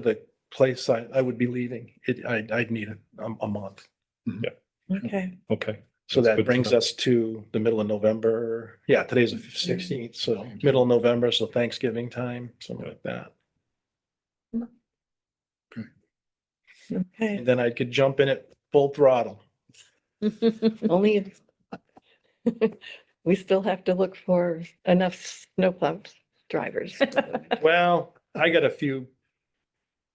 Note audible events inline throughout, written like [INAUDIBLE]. the place I, I would be leaving, it, I, I'd need a, a month. Okay, Okay, So That's good that to brings know. us to the middle of November. Yeah, today's the sixteenth, so middle of November, so Thanksgiving time, something like that. okay. And then I could jump in at full throttle. Only if [LAUGHS] we still have to look for enough snowplow [LAUGHS] drivers. Well, I got a few,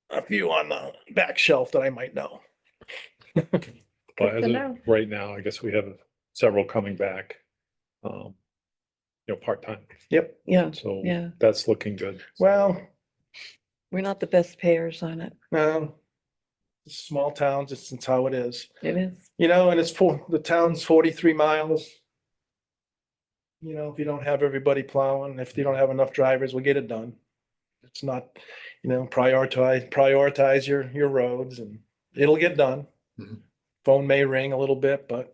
a few on the back shelf that I might [LAUGHS] know. but Good as to of know. right now, I guess we have several coming back. Um, you know, part-time, Yep, Yeah, so Yeah. that's looking good. well, we're not the best payers on it. no. um, Small towns, it's, it's how it is. It [LAUGHS] is. You know, and it's for, the town's forty-three miles. You know, if you don't have everybody plowing, if you don't have enough drivers, we'll get it done. It's not, you know, prioritize, prioritize your, your roads and it'll get done. Mhm. Phone may ring a little bit, but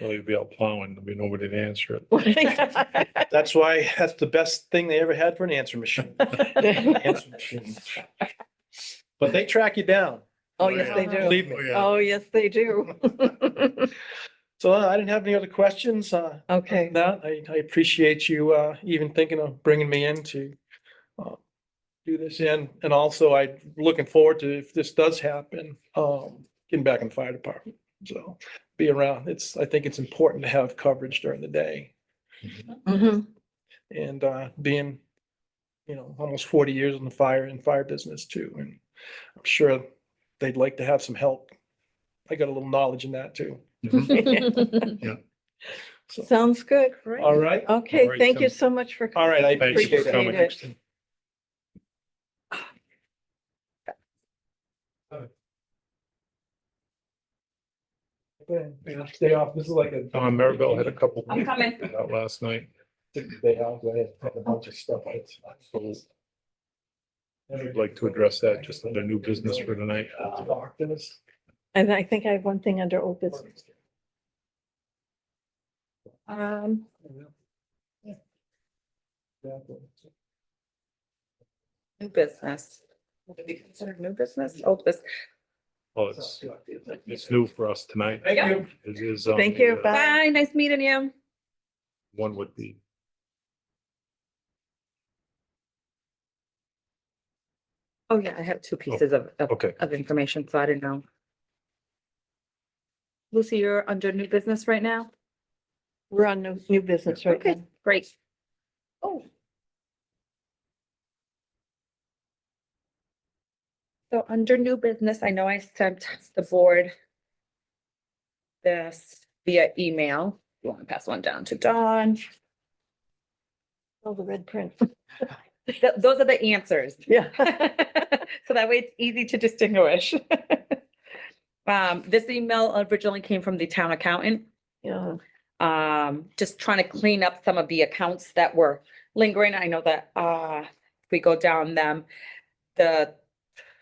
Well, you'll be out plowing, there'll be nobody to answer [LAUGHS] it. Oh, that's why, that's the best thing they ever had for an answer [LAUGHS] machine. Answer machine. But they track you down. Oh, yes, they do. Believe me. Oh, yes, they do. [LAUGHS] So uh, I didn't have any other questions. Uh, Okay, that. I, I appreciate you, uh, even thinking of bringing me in to, uh, do this in. And also I looking forward to if this does happen, um, getting back in the fire department. So be around. It's, I think it's important to have coverage during the day Mhm. and, uh, being, you know, almost forty years in the fire and fire business too. And I'm sure they'd like to have some help. I got a little knowledge in that too. So, [LAUGHS] sounds good. all right. Okay, Alright, thank you Tim. so much for. All right. I [LAUGHS] Thanks appreciate for it. coming. Appreciate it. Go ahead. Yeah, Stay off. This is like a. Uh, Maribel had a couple. I'm coming. [LAUGHS] Out last night. They have, they have a bunch of stuff. It's- I'd like to address that just under new business for tonight. Uh, Doctors. And I think I have one thing under old business. Um, New business. Would it be considered new business, Oh, old business? Well, it's, it's new for us tonight. Thank you. It is. um, Thank you. uh, Bye. Bye, nice meeting you. One would be. Oh, yeah, I have two pieces of, of, Okay. of information, so I didn't know. Lucy, you're under new business right now? we're on new, new business right Okay. now. Great. Oh. So under new business, I know I sent the board this via email. You want to pass one down to Dawn? Oh, the red print. Th- Those are the answers. [LAUGHS] Yeah. [LAUGHS] So that way it's easy to distinguish. [LAUGHS] Um, this email originally came from the town accountant, Yeah. um, just trying to clean up some of the accounts that were lingering. I know that, uh, if we go down them, the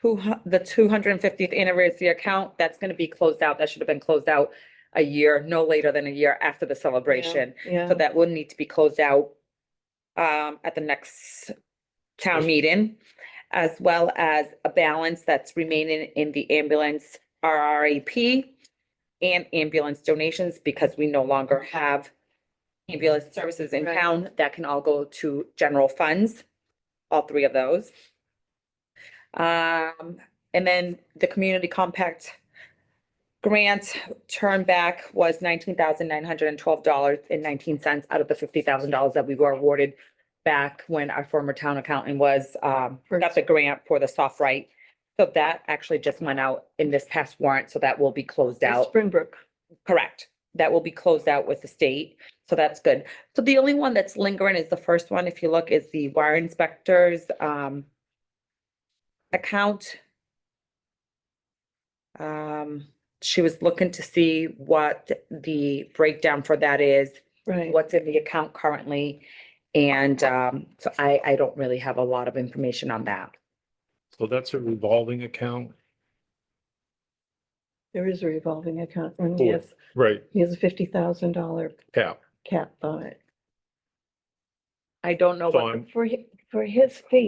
who, the two hundred and fiftieth anniversary account, that's gonna be closed out. That should have been closed out a year, no later than a year after the celebration. Yeah. So that will need to be closed out um, at the next town meeting, as well as a balance that's remaining in the ambulance RRAP and ambulance donations, because we no longer have ambulance services in Right. town. That can all go to general funds, all three of those. Um, and then the community compact grant turn back was nineteen thousand nine hundred and twelve dollars and nineteen cents out of the fifty thousand dollars that we were awarded back when our former town accountant was, um, got the grant for the soft right. So that actually just went out in this past warrant, so that will be closed That's out. Springbrook. Correct. That will be closed out with the state. So that's good. So the only one that's lingering is the first one, if you look, is the wire inspectors, um, account. Um, she was looking to see what the breakdown for that is, Right. what's in the account currently. And, um, so I, I don't really have a lot of information on that. So that's a revolving account. There is a revolving account. and Cool. Yes, Right. he has a fifty thousand dollar Cap. cap on it. I don't know So what I'm- For, hi- for his fee,